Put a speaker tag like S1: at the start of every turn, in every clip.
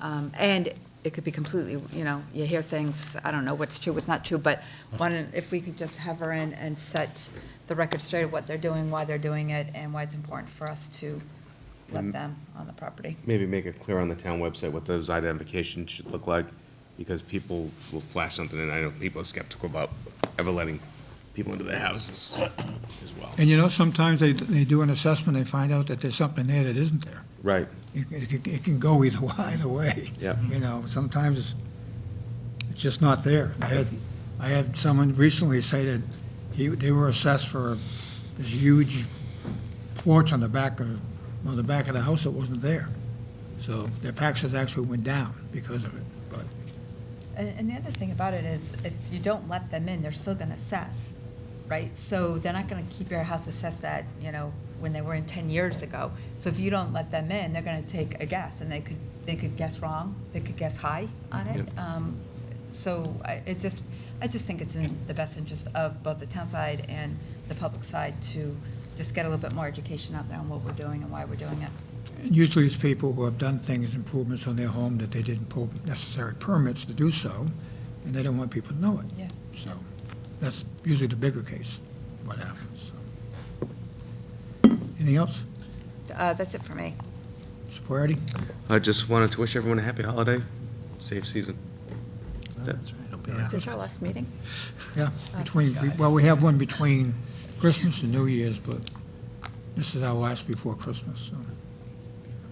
S1: Um, And it could be completely, you know, you hear things, I don't know what's true, what's not true, but one, if we could just have her in and set the record straight of what they're doing, why they're doing it, and why it's important for us to let them on the property.
S2: Maybe make it clear on the town website what those identifications should look like, because people will flash something, and I know people are skeptical about ever letting people into their houses as well.
S3: And you know, sometimes they, they do an assessment, they find out that there's something there that isn't there.
S2: Right,
S3: It, it can- it can go either, wa- either way.
S2: Yeah.
S3: You know, sometimes it's, it's just not there. I had, I had someone recently say that he, they were assessed for this huge porch on the back of, on the back of the house that wasn't there. So their taxes actually went down because of it, but
S1: And, and the other thing about it is, if you don't let them in, they're still gonna assess, right? So they're not gonna keep your house assessed at, you know, when they were in ten years ago. So if you don't let them in, they're gonna take a guess, and they could, they could guess wrong, they could guess high on it.
S2: Yep.
S1: Um, So I, it just, I just think it's in the best interest of both the town side and the public side to just get a little bit more education out there on what we're doing and why we're doing it.
S3: And Usually it's people who have done things, improvements on their home that they didn't pull necessary permits to do so, and they don't want people to know it.
S1: Yeah.
S3: So that's usually the bigger case, what happens. so. Anything else?
S1: Uh, that's it for me.
S3: Mr. Flaherty?
S2: I just wanted to wish everyone a happy holiday, safe season.
S1: Is this our last meeting?
S3: Yeah,
S1: Oh,
S3: between, well, we have one between Christmas and New Year's, but this is our last before Christmas, so.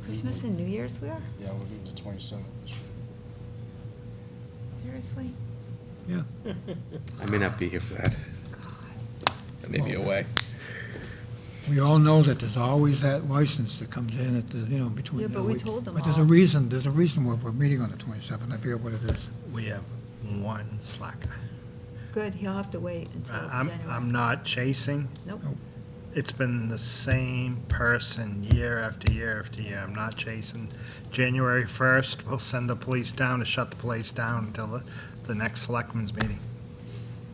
S1: Christmas and New Year's we are?
S4: Yeah, we'll do the twenty-seventh this year.
S1: Seriously?
S2: I may not be here for that. I may be away.
S3: We all know that there's always that license that comes in at the, you know, between.
S1: Yeah, but
S3: the
S1: we
S3: week.
S1: told them
S3: But there's a
S1: all.
S3: reason, there's a reason we're, we're meeting on the 27th, I forget what it is.
S5: We have one slacker.
S1: Good, he'll have to wait until
S5: Uh, I'm,
S1: January.
S5: I'm not chasing.
S1: Nope.
S5: It's been the same person year after year after year. I'm not chasing. January 1st, we'll send the police down to shut the place down until the, the next selectmen's meeting,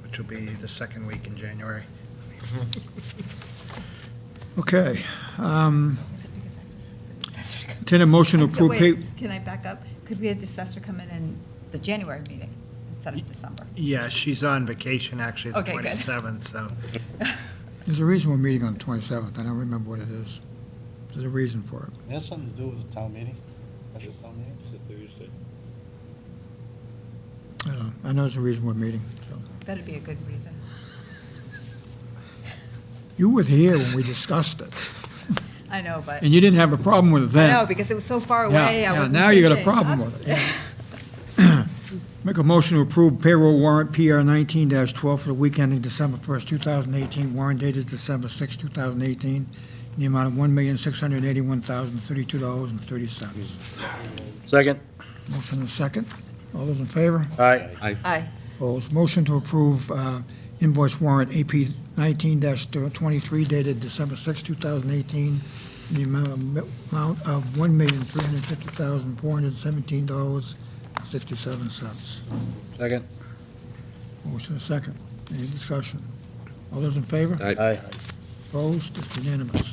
S5: which will be the second week in January.
S3: Okay. um,
S1: Is it because I just asked the assessor to come-
S3: Entertain a motion to
S1: So
S3: approve pay.
S1: wait, can I back up? Could we have the assessor come in in the January meeting instead of December?
S5: Yeah, she's on vacation actually, the
S1: Okay, good.
S5: 27th, so
S3: There's a reason we're meeting on the 27th, I don't remember what it is. There's a reason for it.
S4: It has something to do with the town meeting, special town meeting?
S3: I don't know, I know there's a reason we're meeting, so.
S1: That'd be a good reason.
S3: You were here when we discussed it,
S1: I know, but,
S3: and you didn't have a problem with it then.
S1: no, because it was so far
S3: Yeah,
S1: away, I
S3: yeah,
S1: wasn't
S3: now you got a
S1: thinking.
S3: problem
S1: I'll
S3: with
S1: just-
S3: it, Make a motion to approve payroll warrant PR nineteen twelve for the week ending December first, two thousand eighteen. Warrant date is December sixth, two thousand eighteen, in the amount of one million, six hundred eighty-one thousand, thirty-two dollars and thirty cents.
S4: Second.
S3: Motion and second. All those in favor?
S4: Aye.
S1: Aye,
S3: Opposed. Motion to approve uh, invoice warrant AP nineteen twenty-three dated December sixth, two thousand eighteen, in the amount of, amount of one million, three hundred fifty thousand, four hundred seventeen dollars, sixty-seven cents.
S4: Second.
S3: Motion is second. Any discussion? All those in favor?
S2: Aye.
S4: Aye.
S3: Opposed? It's unanimous.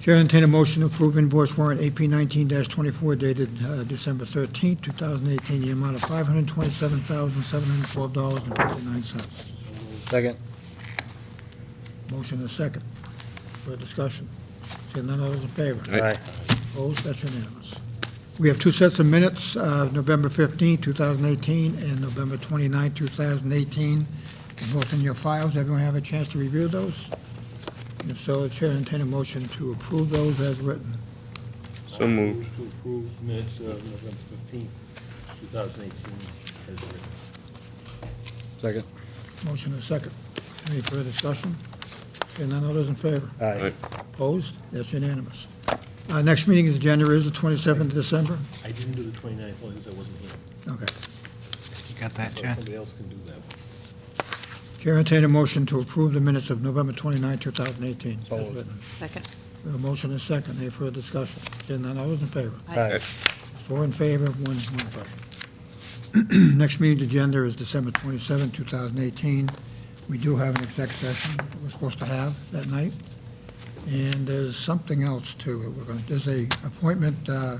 S3: Chair will entertain a motion to approve invoice warrant AP nineteen twenty-four dated uh, December thirteenth, two thousand eighteen, the amount of five hundred twenty-seven thousand, seven hundred twelve dollars and fifty-nine cents.
S4: Second.
S3: Motion is second. For discussion. Seeing none, all those in favor?
S2: Aye.
S3: Opposed? That's unanimous. We have two sets of minutes, uh, November 15, 2018, and November 29, 2018. They're Both in your files. Everyone have a chance to review those? And if so, the Chair will entertain a motion to approve those as written.
S2: So moved.
S6: Uh, To approve minutes of November fifteenth, two thousand eighteen, as written.
S4: Second.
S3: Motion is second. Any further discussion? Seeing none, all those in favor?
S4: Aye.
S3: Opposed? That's unanimous. Our next meeting is January, is the 27th of December?
S6: I didn't do the 29th one because I wasn't here,
S3: Okay.
S5: you got that,
S6: so
S5: Jen?
S6: somebody else can do that one.
S3: Chair will entertain a motion to approve the minutes of November 29, 2018,
S4: So
S3: as
S4: moved.
S3: written.
S1: second.
S3: We have a motion and a second. Any further discussion? Seeing none, all those in favor?
S4: Aye.
S3: Four in favor, one, one opposed. Next meeting agenda is December 27, 2018. We do have an exec session that we're supposed to have that night. And there's something else too. We're going, there's a appointment, uh,